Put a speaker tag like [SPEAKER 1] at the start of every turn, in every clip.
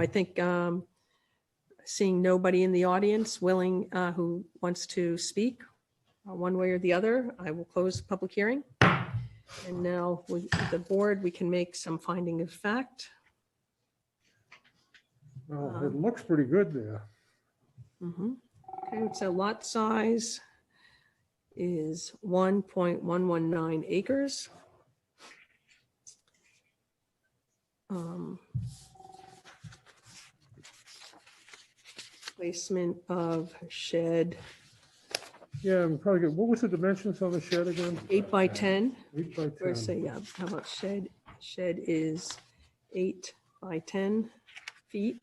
[SPEAKER 1] I think um, seeing nobody in the audience willing, uh, who wants to speak uh, one way or the other, I will close the public hearing. And now with the board, we can make some finding of fact.
[SPEAKER 2] Well, it
[SPEAKER 1] Um,
[SPEAKER 2] looks pretty good there.
[SPEAKER 1] Mhm. Okay, so lot size is 1.119 acres. Um, Placement of shed
[SPEAKER 2] Yeah, I'm probably good. What was the dimensions on the shed again?
[SPEAKER 1] eight by 10,
[SPEAKER 2] Eight by
[SPEAKER 1] or
[SPEAKER 2] 10.
[SPEAKER 1] say, yeah, how about shed? Shed is eight by 10 feet.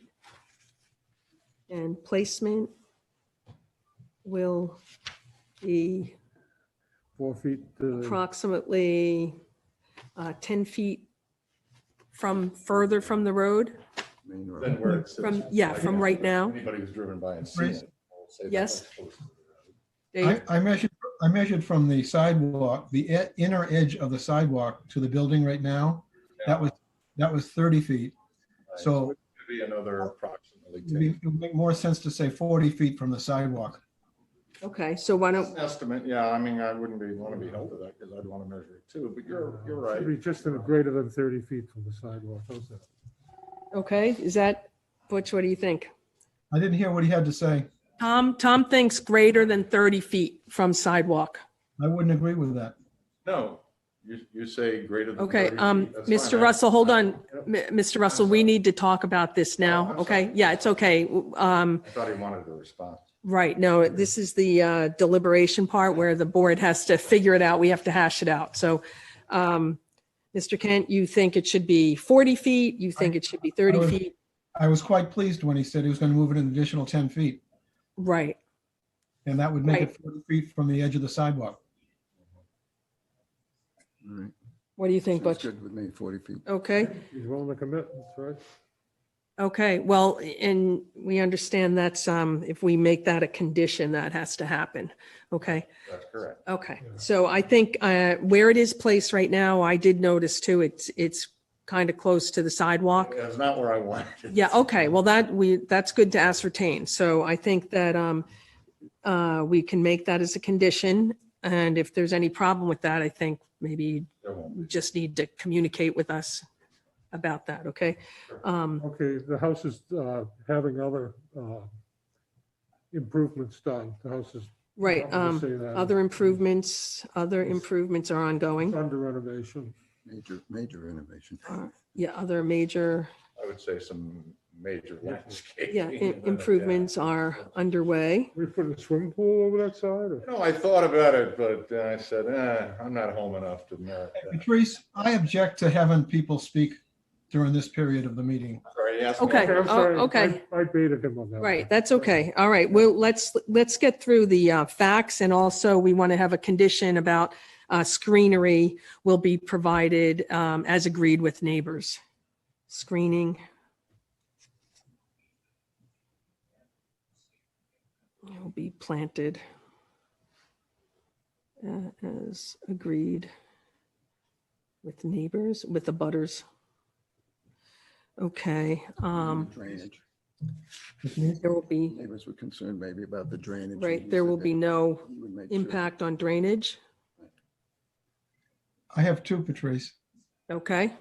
[SPEAKER 1] And placement will be
[SPEAKER 2] Four feet. uh, to the-
[SPEAKER 1] approximately uh, 10 feet from, further from the road,
[SPEAKER 3] Main road.
[SPEAKER 4] Then where it sits.
[SPEAKER 1] from, yeah, from right now.
[SPEAKER 4] Anybody who's driven by and seen
[SPEAKER 5] Right.
[SPEAKER 4] it. will say that
[SPEAKER 1] Yes.
[SPEAKER 4] that's close to the
[SPEAKER 5] I,
[SPEAKER 1] Dave,
[SPEAKER 5] I measured, I measured from the sidewalk, the e- inner edge of the sidewalk to the building right now. That was, that was 30 feet.
[SPEAKER 4] road.
[SPEAKER 5] So
[SPEAKER 4] Right. Could Be another approximately
[SPEAKER 5] it'd be-
[SPEAKER 4] ten.
[SPEAKER 5] it would make more sense to say 40 feet from the sidewalk.
[SPEAKER 1] okay, so why don't,
[SPEAKER 4] Estimate, yeah, I mean, I wouldn't be, want to be held to that because I'd want to measure it too, but you're, you're
[SPEAKER 2] Should Be
[SPEAKER 4] right.
[SPEAKER 2] just a greater than 30 feet from the sidewalk. How's that?
[SPEAKER 1] okay, is that, Butch, what do you think?
[SPEAKER 5] I didn't hear what he had to say.
[SPEAKER 1] Tom, Tom thinks greater than 30 feet from sidewalk.
[SPEAKER 5] I wouldn't agree with that.
[SPEAKER 4] No, you, you say greater than.
[SPEAKER 1] Okay,
[SPEAKER 4] 30 feet,
[SPEAKER 1] um,
[SPEAKER 4] that's fine.
[SPEAKER 1] Mr. Russell, hold on,
[SPEAKER 4] Yep.
[SPEAKER 1] M- Mr. Russell, we need to talk about this
[SPEAKER 3] Oh,
[SPEAKER 1] now,
[SPEAKER 4] I'm
[SPEAKER 1] okay?
[SPEAKER 4] sorry.
[SPEAKER 1] Yeah, it's okay. W- Um,
[SPEAKER 4] I thought he wanted a response.
[SPEAKER 1] right, no, this is the uh, deliberation part where the board has to figure it out. We have to hash it out. So, um, Mr. Kent, you think it should be 40 feet? You think it should be 30
[SPEAKER 5] would-
[SPEAKER 1] feet?
[SPEAKER 5] I was quite pleased when he said he was going to move it an additional 10 feet.
[SPEAKER 1] Right,
[SPEAKER 5] And that would make it 40 feet from the edge of the sidewalk.
[SPEAKER 3] All right.
[SPEAKER 1] what do you think,
[SPEAKER 3] Sounds
[SPEAKER 1] Butch?
[SPEAKER 3] good with me, 40 feet.
[SPEAKER 1] Okay,
[SPEAKER 2] He's willing to commit, that's right.
[SPEAKER 1] okay, well, and we understand that's, um, if we make that a condition, that has to happen, okay?
[SPEAKER 4] That's correct.
[SPEAKER 1] Okay,
[SPEAKER 2] Yeah.
[SPEAKER 1] so I think uh, where it is placed right now, I did notice too, it's, it's kind of close to the sidewalk.
[SPEAKER 4] That's not where I wanted. it.
[SPEAKER 1] Yeah, okay, well, that, we, that's good to ascertain. So I think that um, uh, we can make that as a condition. And if there's any problem with that, I think maybe
[SPEAKER 4] There won't be.
[SPEAKER 1] you just need to communicate with us about that, okay? Um,
[SPEAKER 2] Okay, the house is uh, having other uh, improvements done. The house is.
[SPEAKER 1] Right,
[SPEAKER 2] I'll just
[SPEAKER 1] um,
[SPEAKER 2] say uh, that.
[SPEAKER 1] other improvements, other improvements are
[SPEAKER 2] It's
[SPEAKER 1] ongoing.
[SPEAKER 2] Under renovation.
[SPEAKER 3] Major, major renovation.
[SPEAKER 1] Uh, Yeah, other major
[SPEAKER 4] I would say some major landscaping.
[SPEAKER 1] Yeah,
[SPEAKER 4] and,
[SPEAKER 1] i-
[SPEAKER 4] uh,
[SPEAKER 1] improvements are underway.
[SPEAKER 2] We put a swimming pool over that side or?
[SPEAKER 4] You know, I thought about it, but then I said, eh, I'm not home enough to merit that.
[SPEAKER 5] Patrice, I object to having people speak during this period of the meeting.
[SPEAKER 4] Sorry, yes.
[SPEAKER 1] Okay,
[SPEAKER 2] I'm
[SPEAKER 1] oh,
[SPEAKER 2] sorry. I-
[SPEAKER 1] okay.
[SPEAKER 2] I baited him on that. one.
[SPEAKER 1] Right, that's okay. All right, well, let's, let's get through the uh, facts and also we want to have a condition about uh, screenery will be provided um, as agreed with neighbors. Screening. Will be planted uh, as agreed with neighbors, with the butters. Okay, um,
[SPEAKER 3] Drainage.
[SPEAKER 5] Which means
[SPEAKER 1] there will be.
[SPEAKER 3] Neighbors were concerned maybe about the drainage. and he
[SPEAKER 1] Right, there
[SPEAKER 3] said
[SPEAKER 1] will
[SPEAKER 3] that
[SPEAKER 1] be no
[SPEAKER 3] he would make sure-
[SPEAKER 1] impact on drainage,
[SPEAKER 5] I have two, Patrice.
[SPEAKER 1] okay?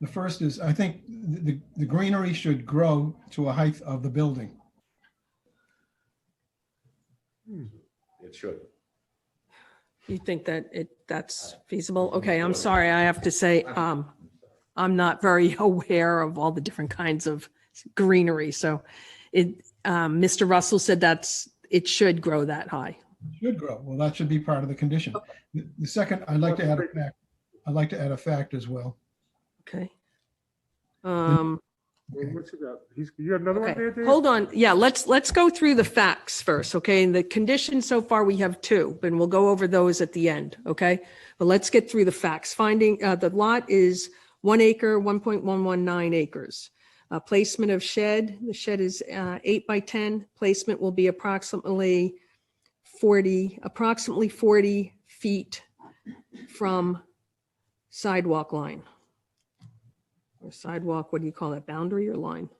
[SPEAKER 5] The first is, I think the, the greenery should grow to a height of the building.
[SPEAKER 4] It should.
[SPEAKER 1] You think that it, that's feasible? Okay, I'm sorry, I have to say, um, I'm not very aware of all the different kinds of greenery, so it, um, Mr. Russell said that's, it should grow that high.
[SPEAKER 5] Should grow. Well, that should be part of the condition. The the second, I'd like to add a fact. I'd like to add a fact as well.
[SPEAKER 1] Okay.
[SPEAKER 3] Hmm.
[SPEAKER 1] Um,
[SPEAKER 2] Well, What's it got? He's, you got another one
[SPEAKER 1] okay,
[SPEAKER 2] there, Dave?
[SPEAKER 1] hold on, yeah, let's, let's go through the facts first, okay? And the conditions so far, we have two, and we'll go over those at the end, okay? But let's get through the facts. Finding, uh, the lot is one acre, one point one one nine acres. Uh, placement of shed, the shed is, uh, eight by ten. Placement will be approximately forty, approximately forty feet from sidewalk line. Sidewalk, what do you call that, boundary or line?